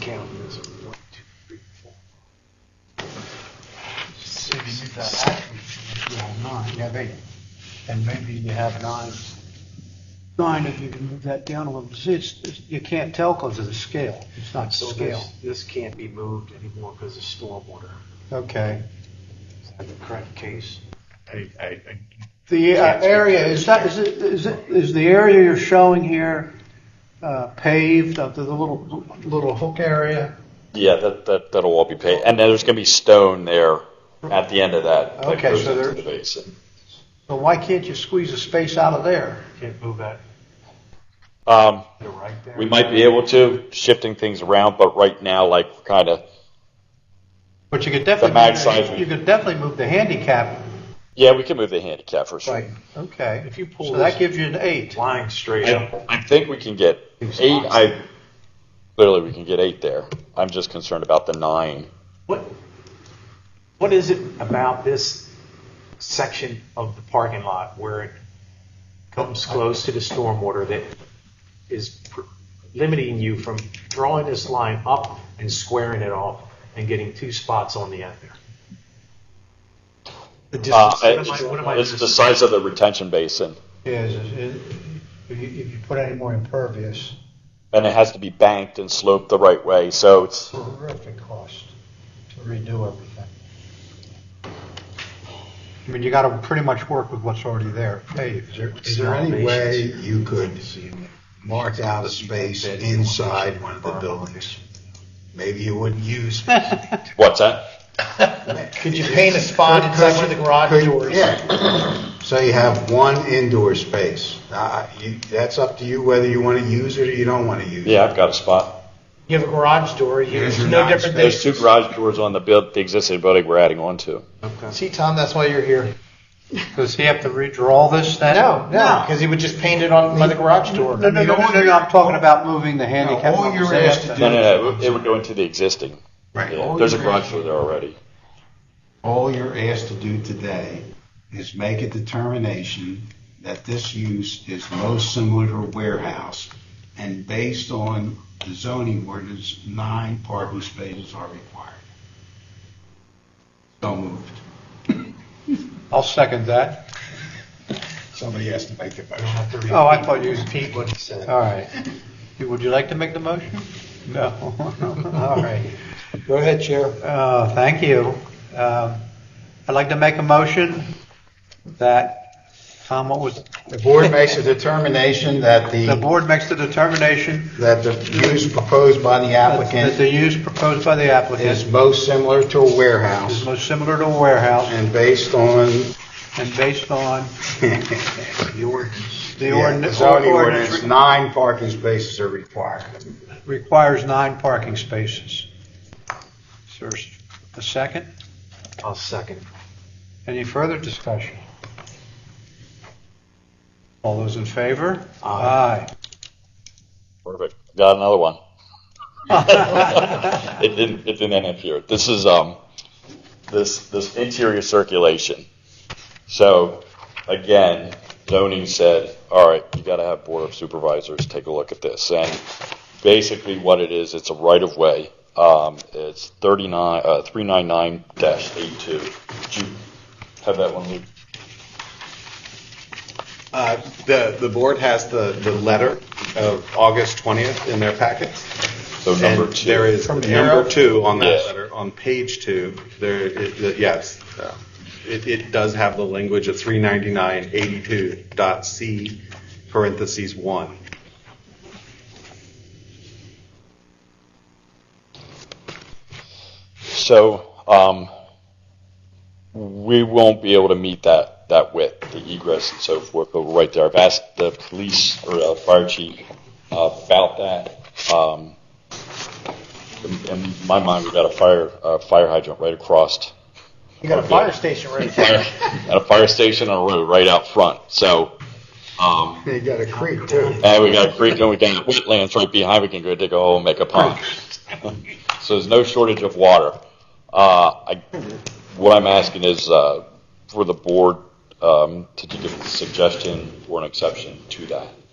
count this, one, two, three, four. Six, Maybe seven, that- eight, you have nine, yeah, they, and maybe you have nine. Nine, if you can move that down a little, see, it's, it's- you can't tell because of the scale, it's not So scale. this, this can't be moved anymore because of stormwater. Okay, Is that the correct case? I, I, I, the uh, Can't speak area, to is that, is it, is it, is the area you're showing here uh, paved, up to the little, little hook area? Yeah, that, that, that'll all be paid. And then there's going to be stone there at the end of that. that Okay, goes so into there- the basin. So why can't you squeeze a space out of there? Can't move that, Um, they're right there. we might be able to, shifting things around, but right now, like, kind of, But you could definitely. mag move size- You could definitely move the handicap. yeah, we can move the handicap for sure. Okay. If you pull So that this- gives you an eight. Line straight up. I, I think we can get eight. I literally we can get eight there. I'm just concerned about the nine. What, what is it about this section of the parking lot where it comes close to the stormwater that is pr- limiting you from drawing this line up and squaring it off and getting two spots on the end there? The Uh, distance, what am I, what am I? it's the size of the retention basin, Is, is- is- if you, if you put any more impervious, and it has to be banked and sloped the right way. So it's terrific cost to redo everything. I mean, you gotta pretty much work with what's already there, paved. Is there any way you could mark out a space inside one of the buildings? Maybe you wouldn't use. what's that? Could you paint a spot inside one of the garage doors? Yeah. So you have one indoor space. Uh, you- That's up to you whether you want to use it or you don't want to use it. Yeah, I've got a spot. You have a garage door, you- Here's it's your no nine different than, There's two garage doors on the build, the existing building we're adding on to. see, Tom, that's why you're here. Does he have to redraw this then? No, no, because he would just paint it on by the garage door. No, no, no, no, no, I'm talking about moving the No, handicap. all you're upstairs. asked to No, no, no. It would go into the existing. Right. Yeah, All there's a you're garage asked- door there already. All you're asked to do today is make a determination that this use is most similar to a warehouse, and based on the zoning ordinance, nine parking spaces are required. So moved. I'll second that. Somebody has to make the motion. Oh, I thought you was Pete. What he said. All right. Would you like to make the motion? No. All right. Go ahead, Chair. Uh, Thank you. Um, I'd like to make a motion that, Tom, what was, The board makes a determination that the the, board makes the determination that the use proposed by the that applicant the use proposed by the is applicant most similar to a is warehouse, most similar to a warehouse and based on and based on the Yeah, the ordinance, zoning ordinance ordinance, nine parking spaces are required. requires nine parking spaces. Is there a second? I'll second. Any further discussion? All those in favor? Aye. Perfect. Got another one. it didn't. It didn't end up here. This is um, this this interior circulation. So, again, zoning said, all right, you got to have board of supervisors take a look at this. And basically, what it is, it's a right of way. Um, it's thirty nine uh, three nine nine dash eight two. Did you have that one, Luke? Uh, The, the board has the, the letter of August 20th in their packets. So number And two. there is, arrow? number two on that Yeah. letter, on page two, there, it- the- yes, uh, it, it does have the language of 399.82 dot C parentheses 1. So, um, we won't be able to meet that, that width, the egress and so forth, but we're right there. I've asked the police or uh, fire chief uh, about that. Um, in- in my mind, we've got a fire, uh, fire hydrant right across You got a fire station right there. fire, at a fire station on a road right out front. So, um, You got a creek, too. and we got a creek and we got wetlands right behind. We can go dig a hole and make a pond. so there's no shortage of water. Uh, I, what I'm asking is uh, for the board um, to give a suggestion or an exception to that.